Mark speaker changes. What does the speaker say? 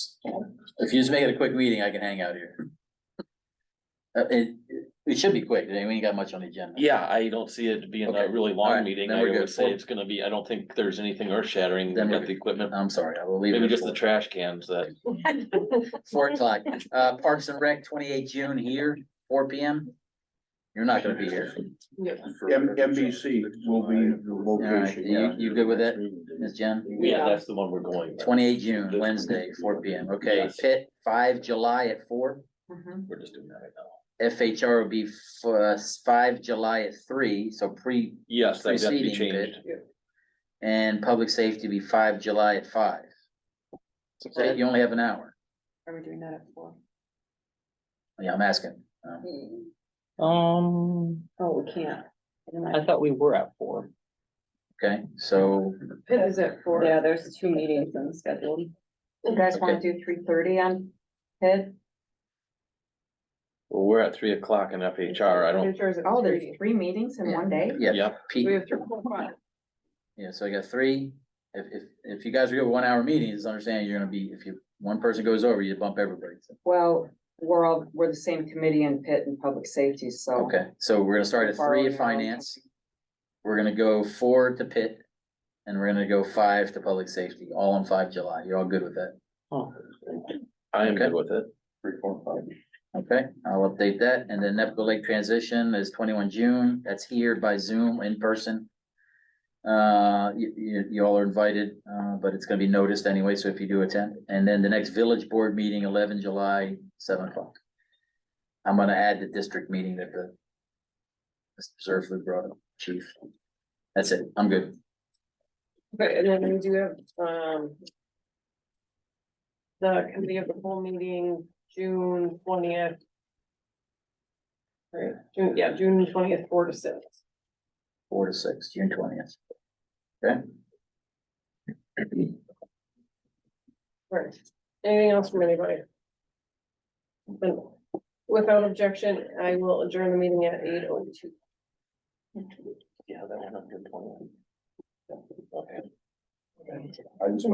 Speaker 1: If you just make it a quick meeting, I can hang out here. Uh, it, it should be quick, I mean, we ain't got much on the agenda.
Speaker 2: Yeah, I don't see it being a
Speaker 1: Okay.
Speaker 2: really
Speaker 1: All
Speaker 2: long
Speaker 1: right,
Speaker 2: meeting.
Speaker 1: then
Speaker 2: I
Speaker 1: we're
Speaker 2: would
Speaker 1: good.
Speaker 2: say it's gonna be, I don't think there's anything earth shattering
Speaker 1: Then we're
Speaker 2: at the
Speaker 1: good.
Speaker 2: equipment.
Speaker 1: I'm sorry, I will leave.
Speaker 2: Maybe
Speaker 1: it at
Speaker 2: just the
Speaker 1: four.
Speaker 2: trash cans that,
Speaker 1: Four o'clock, uh, Parks and Rec, twenty-eight June here, four P M. You're not gonna be here,
Speaker 3: M- MBC will be the
Speaker 1: location. you- you good with that? Ms. Jen,
Speaker 2: yeah,
Speaker 4: Yeah.
Speaker 2: that's the one we're going. with.
Speaker 1: twenty-eight June, Wednesday, four P M, okay,
Speaker 2: Yes.
Speaker 1: Pitt, five July at four.
Speaker 5: Mm-hmm.
Speaker 2: We're just doing that right now.
Speaker 1: F H R will be f- uh, five July at three, so pre,
Speaker 2: Yes, that's to be
Speaker 1: Preceding bid.
Speaker 2: changed.
Speaker 1: and public safety be five July at five. So you only have an hour,
Speaker 4: Are we doing that at four?
Speaker 1: yeah, I'm asking. Um,
Speaker 6: Um,
Speaker 4: Oh, we can't.
Speaker 6: I thought we were at four.
Speaker 1: Okay, so
Speaker 4: It is at four.
Speaker 5: Yeah, there's two meetings on the schedule.
Speaker 4: You guys wanna do three thirty on Pitt?
Speaker 2: Well, we're at three o'clock in FHR. I don't,
Speaker 4: Oh, there's three meetings in one day?
Speaker 1: yeah,
Speaker 2: yep,
Speaker 1: Pete,
Speaker 4: We have three.
Speaker 1: yeah, so I got three. If if if you guys are good with one hour meetings, understand you're gonna be, if you, one person goes over, you bump everybody. So,
Speaker 4: Well, we're all, we're the same committee in Pitt and Public Safety, so.
Speaker 1: Okay, so we're gonna start at three
Speaker 4: Borrowing
Speaker 1: at
Speaker 4: our own
Speaker 1: finance, we're gonna go four to Pitt. And we're gonna go five to public safety, all on five July. You're all good with that?
Speaker 2: I
Speaker 1: Okay.
Speaker 2: am good with it.
Speaker 1: Okay, I'll update that. And then Nepco Lake transition is twenty-one June. That's here by Zoom in person. Uh, you, you, you all are invited, uh, but it's gonna be noticed anyway, so if you do attend. And then the next village board meeting, eleven July, seven o'clock. I'm gonna add the district meeting that the Mr. Zerflu brought up, chief. That's it. I'm good.
Speaker 5: Okay, and then we do have, um. The committee of the whole meeting, June twentieth. Right, June, yeah, June twentieth, four to six.
Speaker 1: Four to six, June twentieth. Okay?
Speaker 5: Right. Anything else from anybody? Then, Without objection, I will adjourn the meeting at eight oh two.
Speaker 2: Yeah, that one I'm good with. Okay.